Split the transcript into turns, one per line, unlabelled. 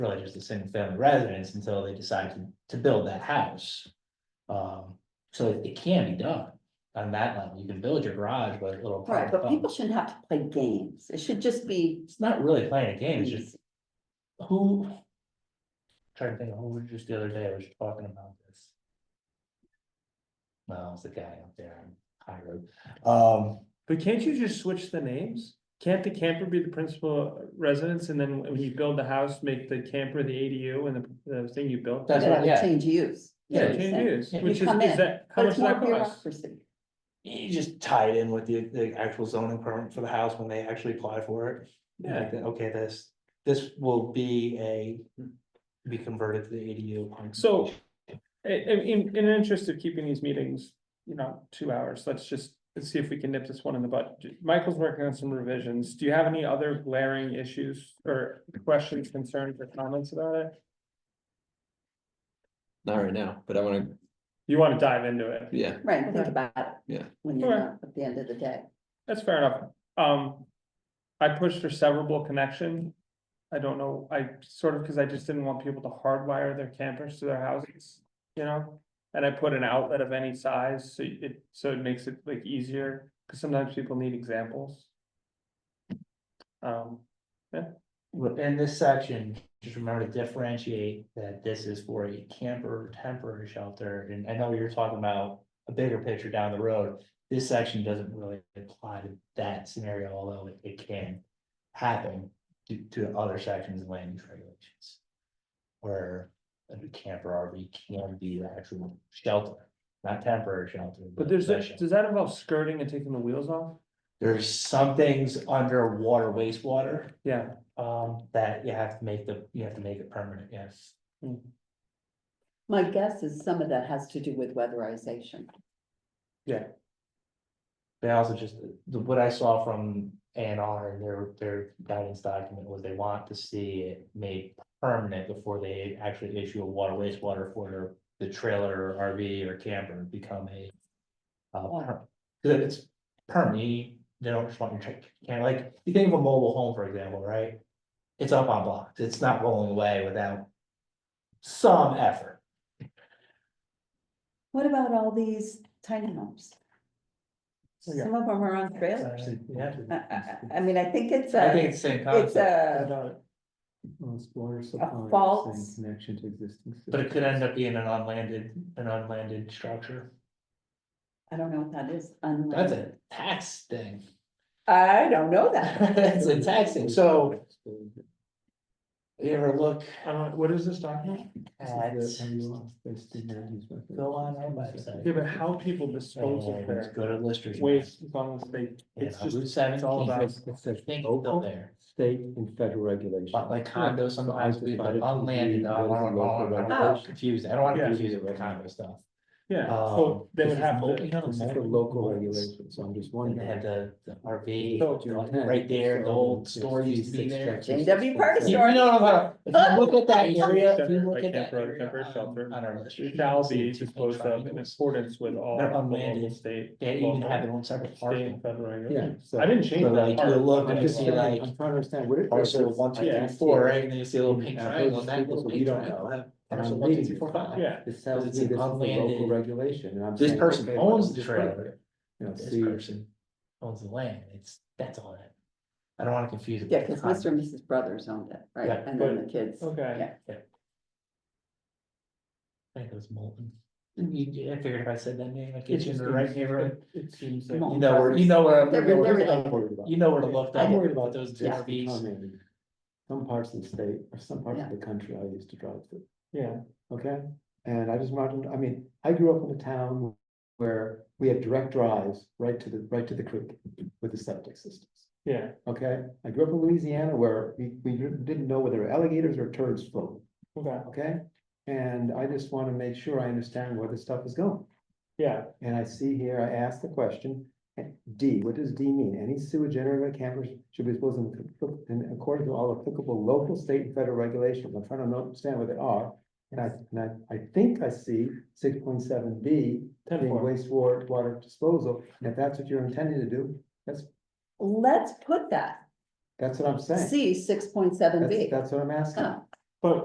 really just a single family residence until they decide to, to build that house. Um, so it- it can be done on that level. You can build your garage with a little.
Right,
private
but people
home.
shouldn't have to play games. It should just be.
It's not really playing a game, it's just
easy.
who? Trying to think, of who was just the other day, was talking about this. No, it's the guy up there on High Road, um,
But can't you just switch the names? Can't the camper be the principal residence and then when you build the house, make the camper the ADU and the, the thing you built?
That's
That
what-
would
yeah.
Change use. you
Yeah,
know what I'm
Change
saying?
use,
Yeah.
which
You
is,
come
is
in,
that, how
But
much
it's
does
more
that cost?
bureaucracy.
you just tie it in with the, the actual zoning permit for the house when they actually apply for it.
Yeah,
Like, Okay, this, this will be a, be converted to the ADU. upon
so,
completion.
i- i- in, in the interest of keeping these meetings, you know, two hours, let's just, let's see if we can nip this one in the bud. Michael's working on some revisions. Do you have any other glaring issues or questions, concerns or comments about it?
Not right now, but I wanna,
You want to dive into it?
yeah,
Right, think
Okay.
about it.
Yeah.
When you're done
Alright.
at the end of the day.
That's fair enough. Um, I pushed for severable connection. I don't know, I sort of, cause I just didn't want people to hardwire their campers to their houses, you know? And I put an outlet of any size, so it, so it makes it like easier, cause sometimes people need examples. Um,
Within this section, just remember to differentiate that this is for a camper or temporary shelter, and I know you're talking about a bigger picture down the road. This section doesn't really apply to that scenario, although it, it can happen to, to other sections of land use regulations. Where a camper RV can be the actual shelter, not temporary shelter.
but there's,
a
that- does that involve skirting and taking the wheels off?
There's some things under water wastewater
Yeah,
um, that you have to make the, you have to make it permanent, yes.
My guess is some of that has to do with weatherization.
They also just, the, what I saw from A and R, their, their guidance document was they want to see it made permanent before they actually issue a water wastewater for their- the trailer, or RV or camper become a uh, per- 'cause it's permanent, you- they don't just want your tra- can, like, you think of a mobile home, for example, right? It's up on blocks, it's not rolling away without some effort.
What about all these tiny homes?
Oh, Yeah. Uh,
Some of them are on trailers.
Yeah.
I, I, Uh, I mean, I think it's
I think
a,
it's the same
it's
concept,
a, a false.
but it could end up being an unlanded, an unlanded structure.
I don't know what that is.
That's a
unleaded.
tax thing.
I don't know that.
It's a tax thing, so. You ever look
I don't, what is this document?
at, go on our website.
Yeah, but how people dispose of
and
their
Go to listers.
waste as long as they,
Yeah,
it's just,
Route
it's all about.
seventeen, I think it's still there,
State and federal regulations.
but like condos sometimes, we
Decided to
unlanded, I don't
be-
want, I don't
Oh.
want, confused, I don't want to
Yeah.
confuse it with condo stuff.
Yeah,
Um,
so they would
this is
have
multi-
to,
you know,
This is
multi-
the local regulations, so I'm just
And they had
wondering.
the, the
So-
RV,
What you had,
right there, the
so
old
it's
store used to be
66
there.
chapters.
J.W. Parker
you
Store.
know what I'm talking about. If you look at that
Yeah.
area, if you
Shelter,
look
like
at that
temporary
area
temporary
on-
shelter,
on our list, you
it
can
shall
see
be
it's a
disposed of in
triangle.
accordance with all
They're
the local
unlanded.
state.
They even
local,
have their own separate
state and
parking.
federal
Yeah,
regulations.
so.
I didn't
So
change that
like you
part.
look
I'm
and you
just
see
saying,
like oh,
I'm trying to understand what. it-
parcel one, two,
Yeah.
three, four, right? And then you see a little pink
Yeah.
triangle and that little
So we
pink
don't
triangle.
know.
have
I'm
parcel one, two,
reading
three,
it.
four, five.
Yeah,
This tells me
Because
this
it's
is the
an
local
unlanded-
regulation and I'm.
This
saying,
person
okay, well,
owns the
just put it,
trailer,
You know,
this
see-
person owns the land, it's, that's all that. I don't wanna confuse it.
Yeah,
with
because
condo.
Mr. and Mrs. Brothers owned it, right?
Yeah,
And then the kids.
okay,
Yeah.
I think it was Molten. You, I figured if I said that name, I'd get
It's
you in
just
the right
gonna-
neighborhood.
it seems
Come
Oh,
like,
on.
You know where, you know where,
They're-
I'm-
they're-
I'm worried about.
you know where to look.
I'm
up
worried about
those
Just
RVs.
becoming- Some parts of the state or some parts of the country I used to drive through.
yeah,
Okay, and I just wanted, I mean, I grew up in a town where we had direct drives right to the, right to the creek with the septic systems.
yeah,
Okay, I grew up in Louisiana where we, we didn't know whether alligators or turds floated,
okay,
okay? And I just want to make sure I understand where this stuff is going.
yeah,
And I see here, I asked the question, eh, D, what does D mean? Any sewage generated by campers should be disposed in, in accordance to all applicable local, state, and federal regulations. I'm trying to understand what they are. And I, and I, I think I see six point seven B
ten
being
four.
wastewater water disposal. And if that's what you're intending to do,
Let's put that,
that's what I'm saying.
C six point seven
That's,
B.
that's what I'm asking.
Oh,